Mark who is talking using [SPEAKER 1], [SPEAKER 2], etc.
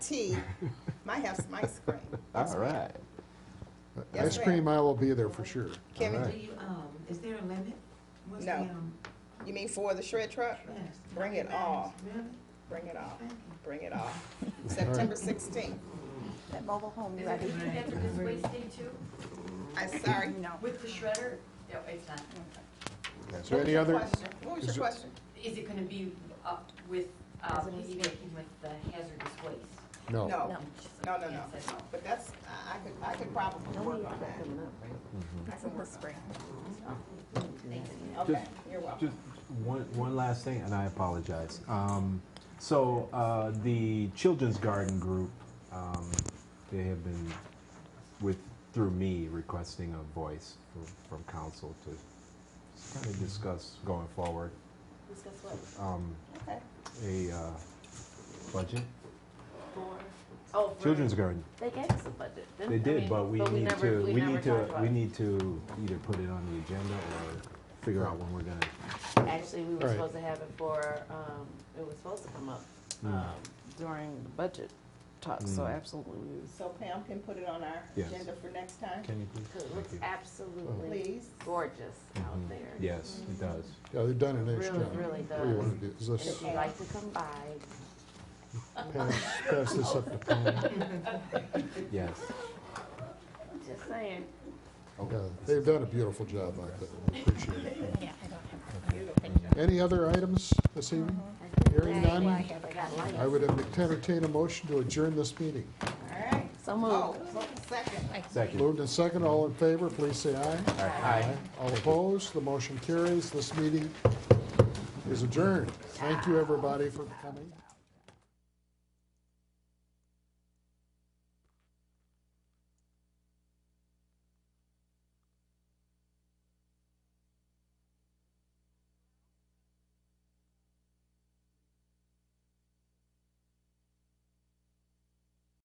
[SPEAKER 1] tea, might have some ice cream.
[SPEAKER 2] All right.
[SPEAKER 1] Yes,
[SPEAKER 3] Ice
[SPEAKER 1] ma'am.
[SPEAKER 3] cream aisle will be there for sure.
[SPEAKER 2] All
[SPEAKER 1] Can we,
[SPEAKER 2] right.
[SPEAKER 4] Do you, um, is there a limit? What's
[SPEAKER 1] No.
[SPEAKER 4] the, um,
[SPEAKER 1] you mean for the shred truck?
[SPEAKER 4] yes.
[SPEAKER 1] Bring it all. Oh.
[SPEAKER 4] Really?
[SPEAKER 1] Bring it all,
[SPEAKER 4] Thank you.
[SPEAKER 1] bring it all. September sixteenth.
[SPEAKER 5] That mobile home
[SPEAKER 6] Is it
[SPEAKER 5] ready.
[SPEAKER 6] connected with wasting too,
[SPEAKER 1] I'm sorry.
[SPEAKER 5] No.
[SPEAKER 6] with the shredder? No, it's not.
[SPEAKER 3] Is
[SPEAKER 1] What
[SPEAKER 3] there
[SPEAKER 1] was
[SPEAKER 3] any
[SPEAKER 1] your
[SPEAKER 3] other,
[SPEAKER 1] question? What was
[SPEAKER 3] is
[SPEAKER 1] your
[SPEAKER 3] there-
[SPEAKER 1] question?
[SPEAKER 6] Is it gonna be up with, uh, piggybacking with the hazardous waste?
[SPEAKER 3] no.
[SPEAKER 1] No, no, no, no.
[SPEAKER 6] Can't say no.
[SPEAKER 1] But that's, I I could, I could probably work on that.
[SPEAKER 7] Mm-hmm.
[SPEAKER 1] I can work on that. Okay, you're welcome.
[SPEAKER 7] Just one, one last thing, and I apologize. Um, so uh, the Children's Garden Group, um, they have been with through me requesting a voice from, from council to kind of discuss going forward um,
[SPEAKER 1] Okay.
[SPEAKER 7] a uh, budget.
[SPEAKER 8] Oh, for-
[SPEAKER 7] Children's Garden.
[SPEAKER 8] They gave us a budget, didn't
[SPEAKER 7] They
[SPEAKER 8] I
[SPEAKER 7] did,
[SPEAKER 8] mean,
[SPEAKER 7] but we need
[SPEAKER 8] never-
[SPEAKER 7] to we
[SPEAKER 8] never
[SPEAKER 7] need to
[SPEAKER 8] talked about
[SPEAKER 7] we
[SPEAKER 8] it.
[SPEAKER 7] need to either put it on the agenda or figure out when we're gonna.
[SPEAKER 8] Actually, we were
[SPEAKER 3] Right.
[SPEAKER 8] supposed to have it for, um, it was supposed to come up,
[SPEAKER 7] Hmm.
[SPEAKER 8] um,
[SPEAKER 7] uh,
[SPEAKER 8] during budget talks, so
[SPEAKER 7] Mm.
[SPEAKER 8] absolutely, we was,
[SPEAKER 1] So Pam can put it on our
[SPEAKER 7] Yes.
[SPEAKER 1] agenda for next time,
[SPEAKER 7] Can you please?
[SPEAKER 8] cause it
[SPEAKER 7] Thank
[SPEAKER 8] looks
[SPEAKER 7] you.
[SPEAKER 8] absolutely
[SPEAKER 1] please.
[SPEAKER 8] gorgeous out
[SPEAKER 7] Mhm.
[SPEAKER 8] there.
[SPEAKER 7] Yes, it does.
[SPEAKER 3] Yeah, they've done an
[SPEAKER 8] Really,
[SPEAKER 3] extra.
[SPEAKER 8] really
[SPEAKER 3] What do you
[SPEAKER 8] does.
[SPEAKER 3] want to do? Is
[SPEAKER 8] And
[SPEAKER 3] this,
[SPEAKER 8] if you'd like to come by,
[SPEAKER 3] pass, pass this up to Pam?
[SPEAKER 7] Yes.
[SPEAKER 8] just saying,
[SPEAKER 3] Yeah, They've done a beautiful job out there. We appreciate it. Any other items this evening? Hearing none,
[SPEAKER 8] I got light.
[SPEAKER 3] I would entertain a motion to adjourn this meeting.
[SPEAKER 1] All right.
[SPEAKER 8] So
[SPEAKER 1] Oh,
[SPEAKER 8] moved.
[SPEAKER 1] second.
[SPEAKER 7] Second.
[SPEAKER 3] Moved and second, all in favor, please say aye.
[SPEAKER 7] Aye.
[SPEAKER 3] All opposed, the motion carries. This meeting is adjourned. Thank you, everybody, for coming.